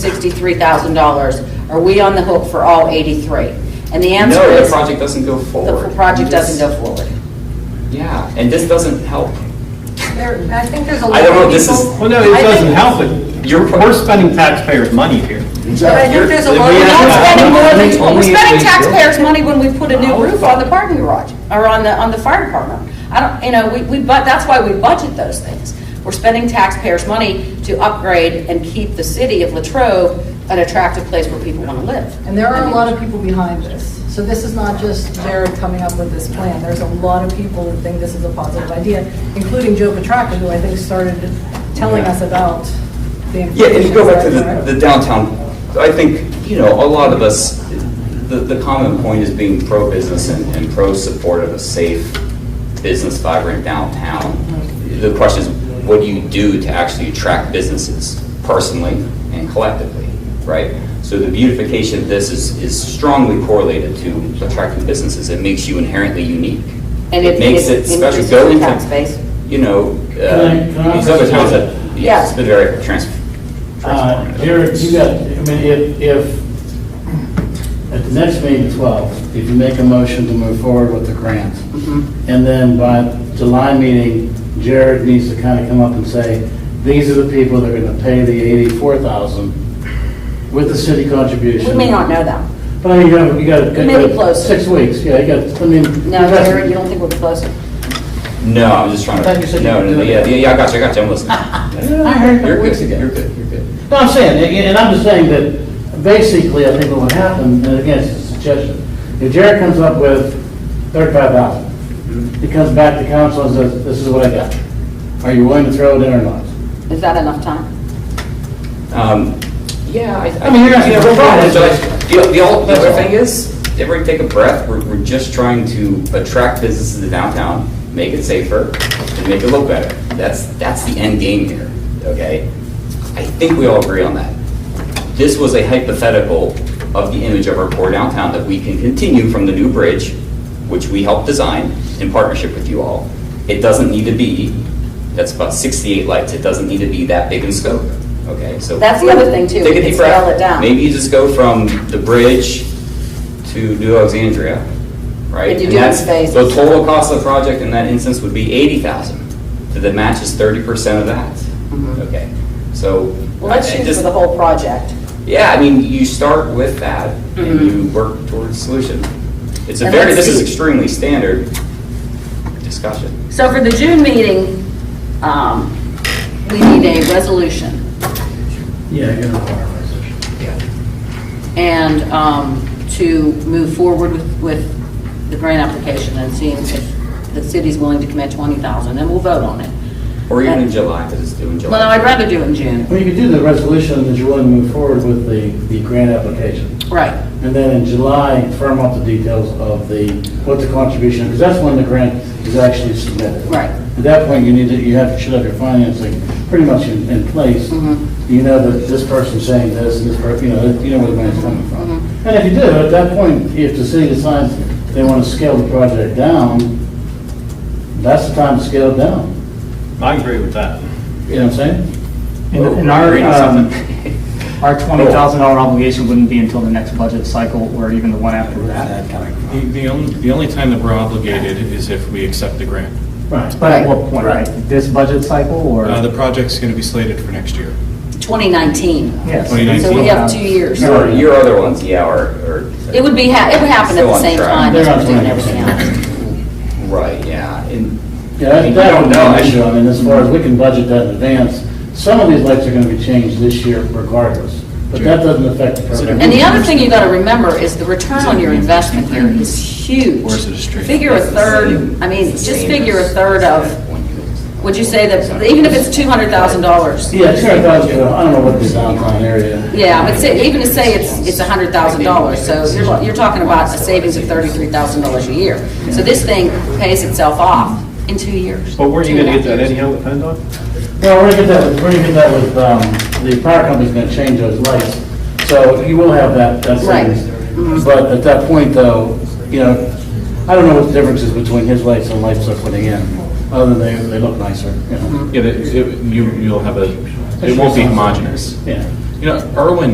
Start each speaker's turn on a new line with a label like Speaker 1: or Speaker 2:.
Speaker 1: $63,000, are we on the hook for all 83? And the answer
Speaker 2: No, the
Speaker 1: is,
Speaker 2: project doesn't go forward.
Speaker 1: the project doesn't
Speaker 2: This-
Speaker 1: go forward.
Speaker 2: Yeah, and this doesn't help.
Speaker 3: There, I think there's a lot
Speaker 2: I
Speaker 3: of
Speaker 2: don't
Speaker 3: people.
Speaker 2: know, this is-
Speaker 4: Well, no, it
Speaker 3: I
Speaker 4: doesn't
Speaker 3: think-
Speaker 4: help, but you're, we're spending taxpayers' money here.
Speaker 3: But I think there's a
Speaker 4: You're-
Speaker 3: lot
Speaker 4: we
Speaker 3: of.
Speaker 1: We're not
Speaker 4: have-
Speaker 1: spending more than,
Speaker 2: Only
Speaker 1: we're
Speaker 2: if
Speaker 1: spending
Speaker 2: we-
Speaker 1: taxpayers' money when we put a new roof on the parking garage, or on the, on the fire department. I don't, you know, we, we, but, that's why we budget those things. We're spending taxpayers' money to upgrade and keep the city of Latrobe an attractive place where people want to live.
Speaker 3: And there are a lot of people behind this. So this is not just Jared coming up with this plan. There's a lot of people that think this is a positive idea, including Joe Petracca, who I think started telling us about the.
Speaker 2: Yeah, and you go back to
Speaker 3: information.
Speaker 2: the, the downtown, I think, you know, a lot of us, the, the common point is being pro-business and, and pro-support of a safe, business vibrant downtown. The question is, what do you do to actually attract businesses personally and collectively, right? So the beautification of this is, is strongly correlated to attracting businesses. It makes you inherently unique.
Speaker 1: And
Speaker 2: It makes it special.
Speaker 1: increases
Speaker 2: Go
Speaker 1: the
Speaker 2: into-
Speaker 1: tax base.
Speaker 2: You know,
Speaker 5: Can I- can
Speaker 2: uh,
Speaker 5: I
Speaker 2: these other towns that,
Speaker 5: present-
Speaker 2: yes, it's been very trans,
Speaker 5: Uh, Jared, you got, I mean, if, if, at the next meeting, 12, if you make a motion to move forward with the grant,
Speaker 1: Mm-hmm.
Speaker 5: and then by July meeting, Jared needs to kind of come up and say, these are the people that are going to pay the 84,000 with the city contribution.
Speaker 1: We may not know that.
Speaker 5: But I mean, you got, you got.
Speaker 1: We may be close.
Speaker 5: Six weeks, yeah, you got, I mean.
Speaker 1: No, Jared, you don't think we're close?
Speaker 2: No, I'm just trying
Speaker 5: I thought you
Speaker 2: to,
Speaker 5: said
Speaker 2: no,
Speaker 5: you
Speaker 2: no, no,
Speaker 5: could do
Speaker 2: yeah,
Speaker 5: it.
Speaker 2: yeah, yeah, I got you, I got you, I'm listening.
Speaker 5: I heard a couple
Speaker 2: You're good,
Speaker 5: weeks ago.
Speaker 2: You're good, you're good.
Speaker 5: No, I'm saying, and- and I'm just saying that basically, I think what would happen, and again, it's a suggestion, if Jared comes up with thirty-five thousand, he comes back to council and says, this is what I got. Are you willing to throw it in or not?
Speaker 1: Is that enough time?
Speaker 2: Um, Yeah, I.
Speaker 5: I mean, you're not-
Speaker 2: you know,
Speaker 5: we're fine.
Speaker 2: but The, the ul- the
Speaker 5: That's
Speaker 2: other
Speaker 5: all.
Speaker 2: thing is, everybody take a breath, we're, we're just trying to attract businesses to downtown, make it safer, and make it look better. That's, that's the end game here, okay? I think we all agree on that. This was a hypothetical of the image of our core downtown that we can continue from the new bridge, which we helped design in partnership with you all. It doesn't need to be, that's about 68 lights, it doesn't need to be that big in scope, okay? So
Speaker 1: That's the other thing, too,
Speaker 2: Take
Speaker 1: we
Speaker 2: a
Speaker 1: can
Speaker 2: deep breath.
Speaker 1: scale it down.
Speaker 2: Maybe you just go from the bridge to New Alexandria, right?
Speaker 1: If you do it
Speaker 2: And
Speaker 1: in
Speaker 2: that's-
Speaker 1: phases.
Speaker 2: The total cost of the project in that instance would be 80,000, so that matches 30% of that, okay? So.
Speaker 1: Mm-hmm. Well, let's
Speaker 2: I- I
Speaker 1: shoot
Speaker 2: just-
Speaker 1: for the whole project.
Speaker 2: yeah, I mean, you start with that and you work towards a solution. It's a
Speaker 1: And
Speaker 2: very,
Speaker 1: let's
Speaker 2: this is
Speaker 1: see.
Speaker 2: extremely standard discussion.
Speaker 1: So for the June meeting, um, we need a resolution.
Speaker 5: Yeah, you're required resolution.
Speaker 1: and um, to move forward with, with the grant application and seeing if the city's willing to commit 20,000, and we'll vote on it.
Speaker 2: Or even in
Speaker 1: And-
Speaker 2: July, because it's due in July.
Speaker 1: Well, no, I'd rather do it in June,
Speaker 5: Well, you could do the resolution that you want to move forward with the, the grant application.
Speaker 1: right.
Speaker 5: And then in July, firm up the details of the, what the contribution, because that's when the grant is actually submitted.
Speaker 1: Right.
Speaker 5: At that point, you need to, you have, should have your financing pretty much in, in place. You know that this person's saying this, and this person, you know, you know where the money's coming from. And if you do, at that point, if the city decides they want to scale the project down, that's the time to scale it down.
Speaker 4: I agree with that.
Speaker 5: You know what I'm saying?
Speaker 6: And
Speaker 2: Oh,
Speaker 6: and our,
Speaker 2: reading
Speaker 6: um,
Speaker 2: something.
Speaker 6: our $20,000 obligation wouldn't be until the next budget cycle or even the one after that.
Speaker 7: The- The only, the only time that we're obligated is if we accept the grant.
Speaker 5: Right.
Speaker 6: But at what point, right? This budget cycle or?
Speaker 7: Uh, The project's going to be slated for next year.
Speaker 1: 2019,
Speaker 6: Yes.
Speaker 7: 2019.
Speaker 1: so we have two years.
Speaker 2: Your, your other ones, yeah, are, are.
Speaker 1: It would be, ha- it would happen at
Speaker 2: Still
Speaker 1: the
Speaker 2: on
Speaker 1: same
Speaker 2: track.
Speaker 1: time as
Speaker 5: They're on
Speaker 1: we're doing
Speaker 5: track.
Speaker 1: everything else.
Speaker 2: Right, yeah, and,
Speaker 5: Yeah,
Speaker 2: You
Speaker 5: that- that
Speaker 2: don't
Speaker 5: would be uh,
Speaker 2: know.
Speaker 5: an issue, I mean, as far as, we can budget that in advance. Some of these lights are gonna be changed this year regardless, but that doesn't affect the program.
Speaker 1: And the other thing you gotta remember is the return on your investment here is huge.
Speaker 7: Or is it a straight-
Speaker 1: Figure a third, I mean, just figure a third of, would you say that, even if it's $200,000?
Speaker 5: Yeah, two hundred thousand, uh, I don't know what the downtown area.
Speaker 1: Yeah, but say- even to say it's, it's a hundred thousand dollars, so you're, you're talking about a savings of thirty-three thousand dollars a year. So this thing pays itself off in two years.
Speaker 4: But weren't you going to get that anyhow with PennDOT?
Speaker 5: Well, we're gonna get that, with- we're gonna get that with, um, the power company's gonna change those lights, so you will have that, that
Speaker 1: Right. Mm-hmm.
Speaker 5: savings. But at that point though, you know, I don't know what the difference is between his lights and lights they're putting in, other than they, they look nicer,
Speaker 1: Mm-hmm.
Speaker 5: you know?
Speaker 7: Yeah, that- it- you- You'll have a, it won't be homogeneous.
Speaker 5: Yeah.
Speaker 7: You know, Irwin